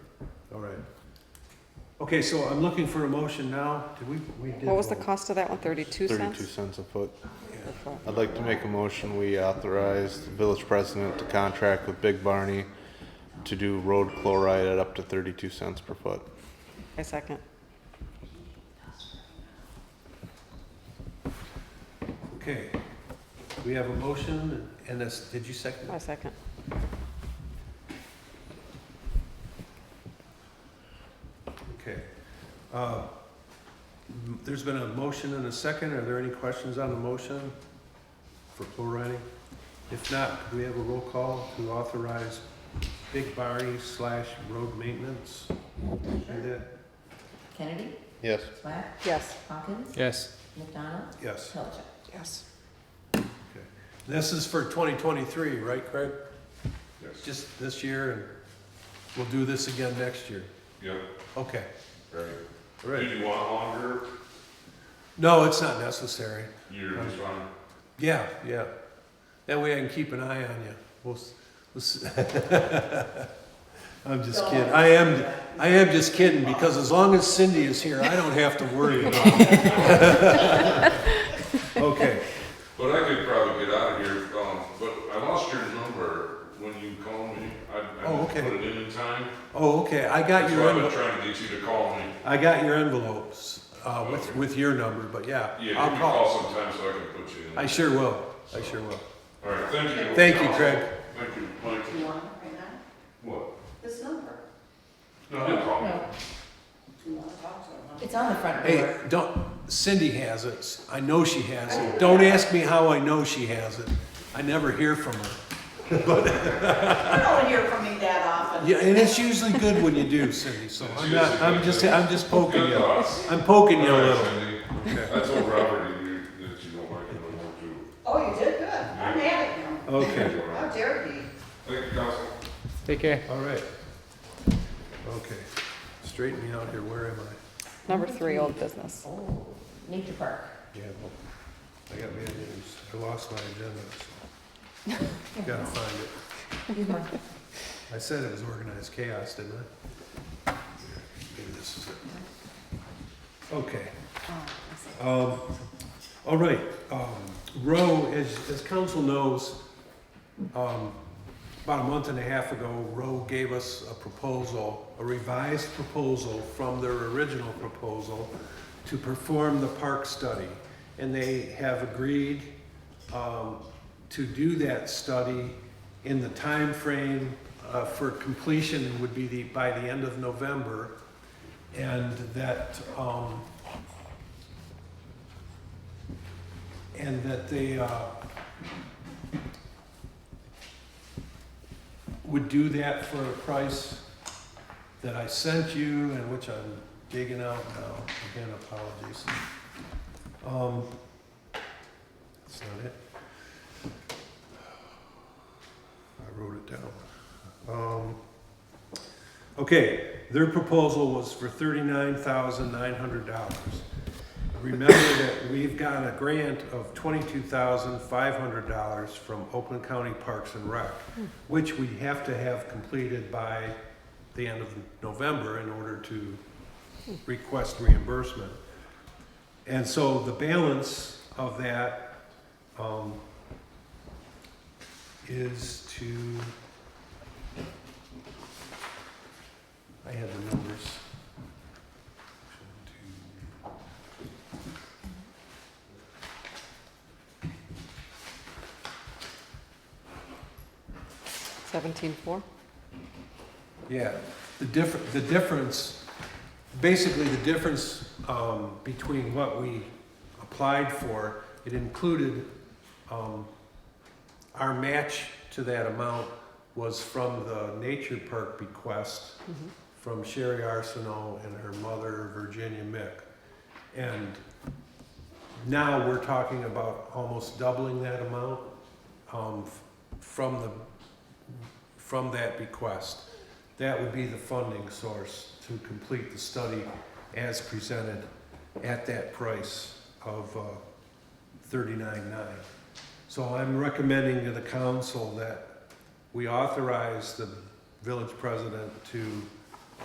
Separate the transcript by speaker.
Speaker 1: all right. Okay, so I'm looking for a motion now. Did we, we did.
Speaker 2: What was the
Speaker 1: vote.
Speaker 2: cost of that one? Thirty-two
Speaker 3: Thirty-two
Speaker 2: cents?
Speaker 3: cents a foot.
Speaker 1: Yeah.
Speaker 3: I'd like to make a motion, we authorize the village president to contract with Big Barney to do road chloride at up to thirty-two cents per foot.
Speaker 2: I second.
Speaker 1: Okay, we have a motion and this, did you second?
Speaker 2: I
Speaker 1: it?
Speaker 2: second.
Speaker 1: Okay. Uh, m- There's been a motion and a second. Are there any questions on the motion for plurality? If not, do we have a roll call to authorize Big Barney slash road maintenance? Do that?
Speaker 4: Kennedy,
Speaker 3: Yes.
Speaker 4: Swack,
Speaker 2: Yes.
Speaker 4: Hawkins,
Speaker 5: Yes.
Speaker 4: McDonald,
Speaker 1: Yes.
Speaker 4: Pilcher.
Speaker 2: Yes.
Speaker 1: This is for 2023, right, Craig? Just this year, and we'll do this again next year.
Speaker 6: Yep,
Speaker 1: Okay.
Speaker 6: right. Do
Speaker 1: Right.
Speaker 6: you want longer?
Speaker 1: No, it's not necessary.
Speaker 6: You're just on,
Speaker 1: Yeah, yeah. That way I can keep an eye on you. We'll, s- we'll s- I'm just kidding. I am, I am just kidding, because as long as Cindy is here, I don't have to worry about it. Okay,
Speaker 6: but I could probably get out of here, um, but I lost your number when you called me. I, I
Speaker 1: Oh,
Speaker 6: didn't
Speaker 1: okay.
Speaker 6: put it in in time.
Speaker 1: oh, okay, I got
Speaker 6: So
Speaker 1: your,
Speaker 6: I've been
Speaker 1: envel-
Speaker 6: trying to get you to call me.
Speaker 1: I got your envelopes, uh, with, with your number, but yeah.
Speaker 6: Yeah, you
Speaker 1: I'll
Speaker 6: can call sometime so I can put you in.
Speaker 1: I sure will, I sure will.
Speaker 6: All right, thank you.
Speaker 1: Thank you, Craig.
Speaker 6: Thank you, Mike.
Speaker 4: you want it right now?
Speaker 6: What?
Speaker 4: This number?
Speaker 6: No, no problem.
Speaker 4: No. It's on the front
Speaker 1: Hey,
Speaker 4: door.
Speaker 1: don't, Cindy has it, I know she has it, don't ask me how I know she has it, I never hear from her.
Speaker 4: You don't hear from me that often.
Speaker 1: Yeah, and it's usually good when you do, Cindy, so I'm not, I'm just, I'm just poking
Speaker 6: Good
Speaker 1: you.
Speaker 6: thoughts.
Speaker 1: I'm poking you a
Speaker 6: All right,
Speaker 1: little.
Speaker 6: Cindy. I told Robert that you, that you don't like it no more too.
Speaker 4: Oh, you did good. I'm at it now.
Speaker 1: Okay,
Speaker 4: How dare he?
Speaker 6: Thank you, Council.
Speaker 5: Take care.
Speaker 1: all right. Okay, straighten me out here, where am I?
Speaker 2: Number three, old business.
Speaker 4: Oh, nature park.
Speaker 1: Yeah, well, I got bad news, I lost my agenda, so gotta find it. I said it was organized chaos, didn't I? Maybe this is it. Okay. Um, all right, um, Roe, as, as council knows, um, about a month and a half ago, Roe gave us a proposal, a revised proposal from their original proposal to perform the park study. And they have agreed, um, to do that study in the timeframe, uh, for completion would be the, by the end of November. And that, um, and that they uh, would do that for a price that I sent you and which I'm digging out now. Again, apologies. Um, That's not it. I wrote it down. Um, Okay, their proposal was for thirty-nine thousand nine hundred dollars. Remember that we've got a grant of twenty-two thousand five hundred dollars from Oakland County Parks and Rec, which we have to have completed by the end of November in order to request reimbursement. And so the balance of that um, is to, I had the numbers.
Speaker 2: Seventeen-four?
Speaker 1: Yeah, the difference, the difference, basically the difference um, between what we applied for, it included, um, our match to that amount was from the nature park bequest
Speaker 2: Mm-hmm.
Speaker 1: from Sherry Arsenault and her mother, Virginia Mick. And now we're talking about almost doubling that amount um, f- from the, from that bequest. That would be the funding source to complete the study as presented at that price of thirty-nine-nine. So I'm recommending to the council that we authorize the village president to